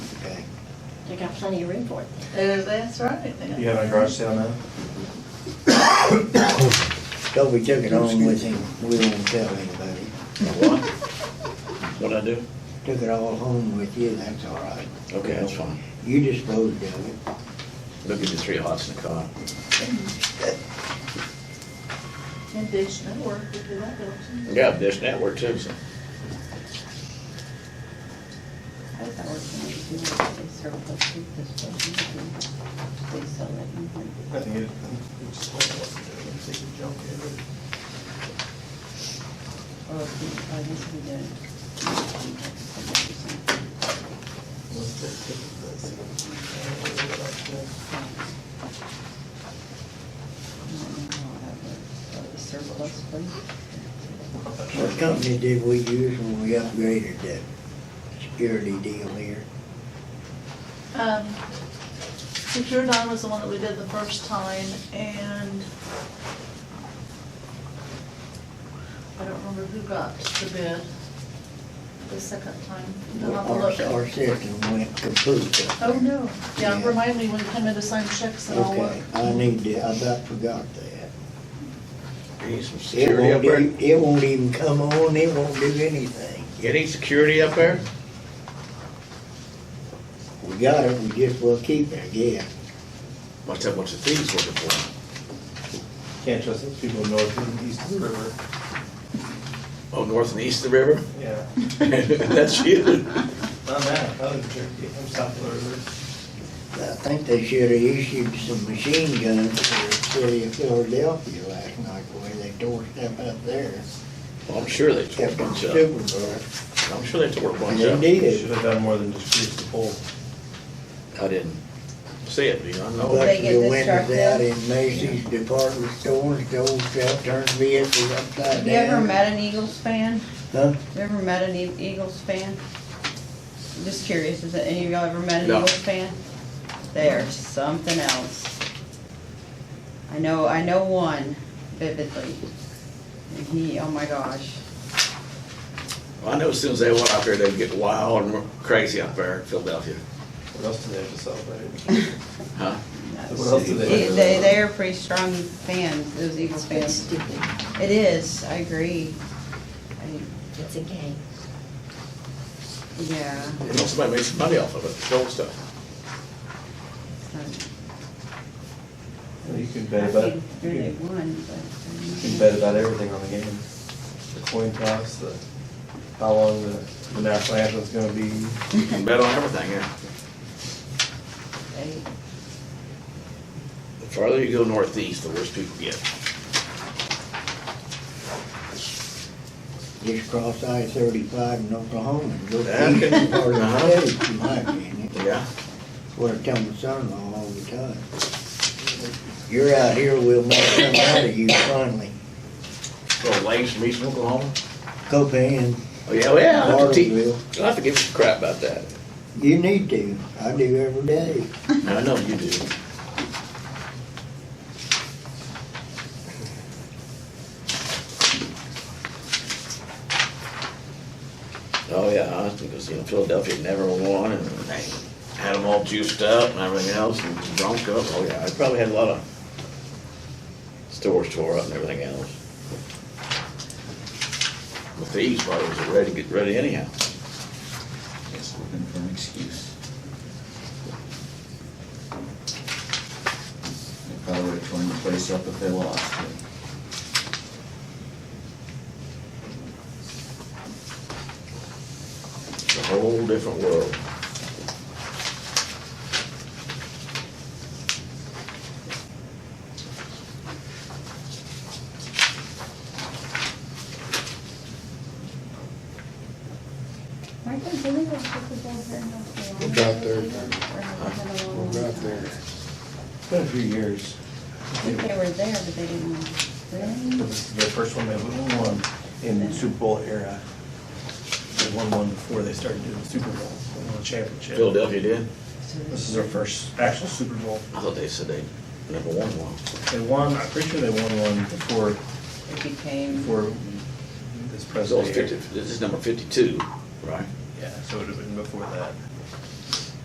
They got plenty of room for it. Uh, That's right. You having a garage sale now? So we took it home with him, we won't tell anybody. What? What'd I do? Took it all home with you, that's all right. Okay, that's fine. You disposed of it. Look at the three hots in the car. And Dish Network, we do that, don't we? Yeah, Dish Network too, so. I thought we were gonna do it, they serve those soup this way, you can- they sell it in here. I think it, it's just what to do, it's taking junk in. Or if we, oh, this we did. Uh, Surplus, please. What company did we use when we upgraded that security deal here? Um, Secure Nine was the one that we did the first time, and I don't remember who got the bid the second time. I'll have to Our, look. our system went kaput. Oh, no. Oh, Yeah, Yeah. remind me when you come in to sign checks and all Okay, that. I need to, I about forgot that. You need some It security up won't, there? do- it won't even come on, it won't do anything. You need security up there? We got it, we just will keep it, yeah. Must have a bunch of thieves working for them. Can't trust those people north and east of the river. Oh, north and east of the river? Yeah. That's you. Not that, that was jerky, I'm south of the river. I think they should have issued some machine guns to the city of Philadelphia last night, the way they tore stuff up there. Well, I'm sure they tore a Kept them bunch up. super bad. I'm sure they tore a bunch They up. Should did. have done more than just grease the pole. I didn't see it, you know, I know. Busted Oh, get the this truck windows out now? in Macy's department stores, gold stuff, turned vehicles upside down. Have you ever met an Eagles fan? Huh? You ever met an E- Eagles fan? Just curious, is it, any of y'all ever met an No. Eagles fan? They're something else. I know, I know one vividly. And he, oh my gosh. I know as soon as they went out there, they'd get wild and crazy out there in Philadelphia. What else do they have to celebrate? Huh? What else do they They, have? they they are pretty strong fans, those Eagles It's fans. stupid. It is, I agree. I- It's a game. Yeah. You know, somebody made some money off of it, gold stuff. it's not- Well, You can I bet about, you think they can- won, you but. can bet about everything on the game. The coin toss, the, how long the, the national anthem's gonna be. You can bet on everything, yeah. They- The farther you go northeast, the worse people get. Just cross I thirty-five in Oklahoma and go That east could- part of Uh-huh. the state, in my opinion. Yeah. What I tell my son-in-law all the time. You're out here, we'll make something out of you finally. Little lakes from eastern Oklahoma. Copan, Oh, yeah, well, I'll have to te- Bartlesville, I'll have to give you some crap about that. you need to, I do every day. I know you do. Oh, yeah, I think it was, you know, Philadelphia never won and they had them all juiced up and everything else and drunk up. Oh, yeah, I probably had a lot of stores tore up and everything else. The thieves probably was ready, get ready anyhow. Yes, looking for an excuse. They probably would have torn the place up if they lost, but It's a whole different world. I can't believe it's just a dead bird. We're about there. We're We're about there. It's been a few years. I think they were there, but they didn't win. Really? This is the first one they've won in the Super Bowl era. They won one before they started doing the Super Bowl, they won a championship. Philadelphia did? This is their first actual Super Bowl. I thought they said they never won one. They won, I'm pretty sure they won one before, It became, before this That's all president. fifty, this is number fifty-two, right? Yeah, so it would have been before that.